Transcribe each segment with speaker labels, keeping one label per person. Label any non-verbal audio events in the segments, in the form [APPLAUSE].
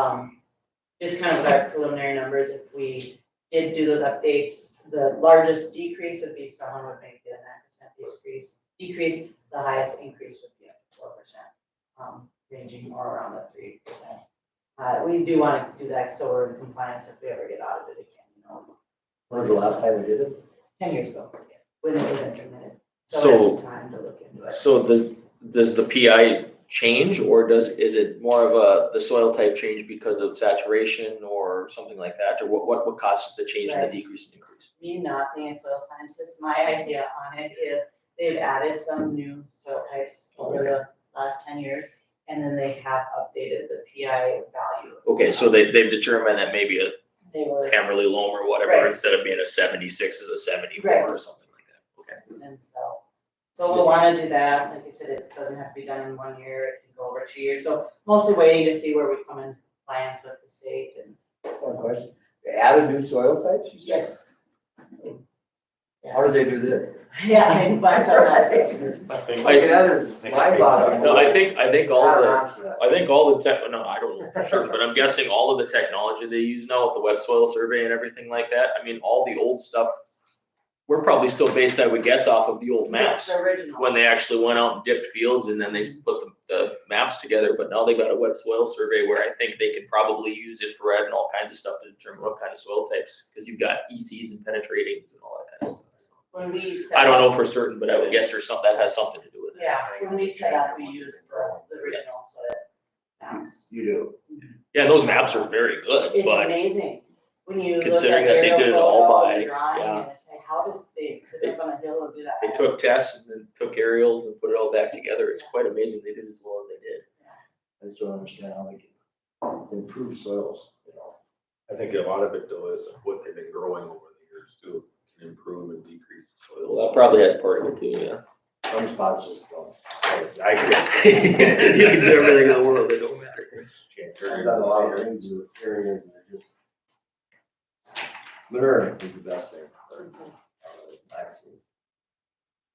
Speaker 1: Um, just kind of with our preliminary numbers, if we did do those updates, the largest decrease would be someone would make the nine percent decrease, decrease, the highest increase would be up to four percent, um, ranging more around the three percent. Uh, we do want to do that, so we're in compliance if we ever get audited again, you know,
Speaker 2: When was the last time we did it?
Speaker 1: ten years ago, when it was implemented.
Speaker 3: So-
Speaker 1: So it's time to look into it.
Speaker 3: So does, does the PI change or does, is it more of a, the soil type change because of saturation or something like that? Or what, what, what causes the change and the
Speaker 1: Right.
Speaker 3: decrease and increase?
Speaker 1: me not being a soil scientist, my idea on it is they've added some new soil types over the last ten years. And then they have updated the PI value.
Speaker 3: Okay, so they, they've determined that maybe a
Speaker 1: They were,
Speaker 3: Hammerly loam or
Speaker 1: Right.
Speaker 3: whatever, instead of being a seventy-six is a
Speaker 1: Right.
Speaker 3: seventy-four or something like that. Okay.
Speaker 1: and so, so we'll wanna do that, like I said, it doesn't have to be done in one year, it can go over two years, so mostly waiting to see where we come in compliance with the state and.
Speaker 2: One question. They added new soil types? you said?
Speaker 1: Yes.
Speaker 2: How did they do this?
Speaker 1: [LAUGHS] Yeah, I, but I found that.
Speaker 4: I think,
Speaker 2: Like, that is mind boggling.
Speaker 3: No, I think, I think all the,
Speaker 1: Uh-huh.
Speaker 2: the.
Speaker 3: I think all the tech, no, I don't know for sure, but I'm guessing all of the technology they use now with the web soil survey and everything like that, I mean, all the old stuff. We're probably still based, I would guess, off of the old maps,
Speaker 1: It's Original.
Speaker 3: when they actually went out and dipped fields and then they put the, the maps together, but now they've got a web soil survey where I think they could probably use infrared and all kinds of stuff to determine what kind of soil types, cause you've got ECs and penetratings and all that kind of stuff.
Speaker 1: When we set
Speaker 3: I
Speaker 1: up-
Speaker 3: don't know for certain, but I would guess there's something, that has something to do with it.
Speaker 1: Yeah, when we set up, we used the, the original soil maps.
Speaker 2: You do.
Speaker 3: Yeah, those maps are very good,
Speaker 1: It's
Speaker 3: but.
Speaker 1: amazing, when you look at
Speaker 3: Considering that they
Speaker 1: aerial
Speaker 3: did it all
Speaker 1: photo
Speaker 3: by-
Speaker 1: and drawing,
Speaker 3: yeah.
Speaker 1: and it's like, how did they sit up on a hill and do that?
Speaker 3: They took tests and then took aerials and put it all back together. It's quite amazing they did as well as they did.
Speaker 2: I just don't understand how they can improve soils, you know?
Speaker 4: I think a lot of it though is what they've been growing over the years too, can improve and decrease
Speaker 3: Well,
Speaker 4: soil.
Speaker 3: that probably has part of it too, yeah.
Speaker 2: Some spots just don't.
Speaker 4: I
Speaker 3: [LAUGHS] You can do everything in the world, it don't matter.
Speaker 4: can't
Speaker 2: I've
Speaker 4: turn
Speaker 2: done a lot of
Speaker 4: it.
Speaker 2: things with areas that are just. Learn is the best thing. or, uh, I've seen.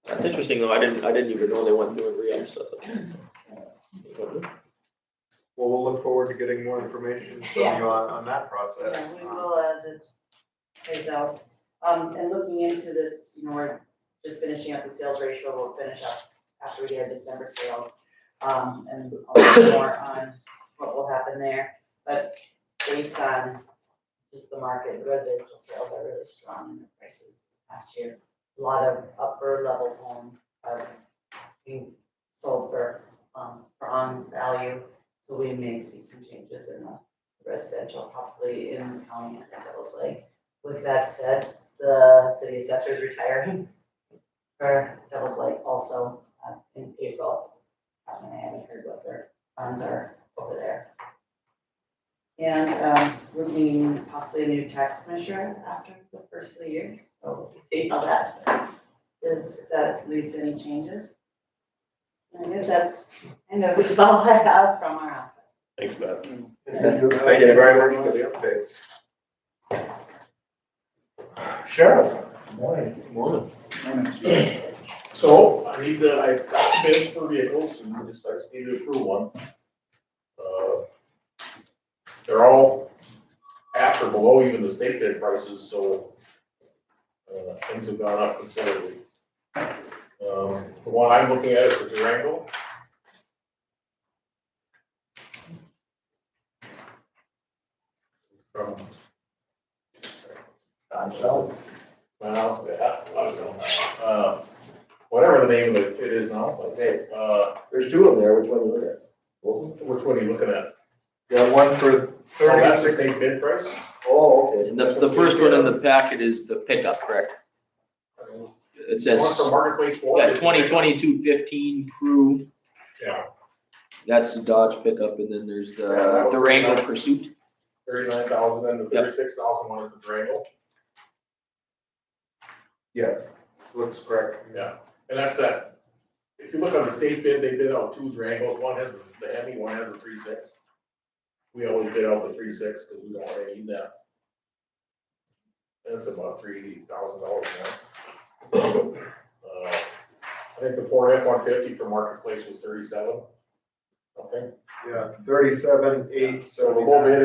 Speaker 3: That's interesting though. I didn't, I didn't even know they went through and re-up stuff.
Speaker 5: Well, we'll look forward to getting more information from
Speaker 1: Yeah.
Speaker 5: you on, on that
Speaker 1: Yeah,
Speaker 5: process.
Speaker 1: we will as it plays out. Um, and looking into this, you know, we're just finishing up the sales ratio, we'll finish up after we get our December sales. Um, and I'll look more on what will happen there, but based on just the market, the residential sales are really strong in the prices this past year. A lot of upper level homes are being sold for, um, strong value, so we may see some changes in the residential property in the county, I think it was like. With that said, the city assessor is retiring. Or that was like also uh, in April. Um, and I haven't heard what their funds are over there. And um, we're meeting possibly a new tax measure after the first of the year, so we'll see how that is, if that at least any changes. And I guess that's kind of [LAUGHS] all I have from our office.
Speaker 4: Thanks, Beth.
Speaker 5: Um, Thank you
Speaker 3: Thank you very
Speaker 5: For the updates. Sheriff,
Speaker 6: Morning.
Speaker 3: Morning.
Speaker 6: So I need to, I got the bids for vehicles and just, I just need to approve one. Uh, They're all at or below even the state bid prices, so uh, things have gone up considerably. Um, The one I'm looking at is the Durango. From,
Speaker 2: I'm sorry.
Speaker 6: well, yeah, I don't know, uh, whatever the name of it it is now, but hey, uh,
Speaker 2: There's two of them there, which one you look at? Both of them?
Speaker 6: Which one are you looking at?
Speaker 5: got one for
Speaker 6: Oh, that's the
Speaker 5: thirty-six,
Speaker 6: state bid price?
Speaker 2: Oh, okay.
Speaker 3: And the, the first one in the packet is the pickup, correct? It
Speaker 6: The
Speaker 3: says,
Speaker 6: One for Marketplace Ford?
Speaker 3: yeah, twenty twenty-two fifteen crew,
Speaker 6: Yeah,
Speaker 3: that's the Dodge pickup, and then there's
Speaker 6: Yeah, that
Speaker 3: the
Speaker 6: was-
Speaker 3: Durango Pursuit.
Speaker 6: thirty-nine thousand, and the
Speaker 3: Yep.
Speaker 6: thirty-six thousand one is the Durango,
Speaker 5: looks correct.
Speaker 6: yeah, and that's that. If you look on the state bid, they bid out two Durangos, one has the heavy, one has the three-six. We always bid out the three-six, because we don't really need that. That's about three thousand dollars now. Uh, I think the Ford F one fifty for Marketplace was thirty-seven. Okay,
Speaker 5: yeah, thirty-seven, eight,
Speaker 6: so
Speaker 5: so
Speaker 6: the whole bid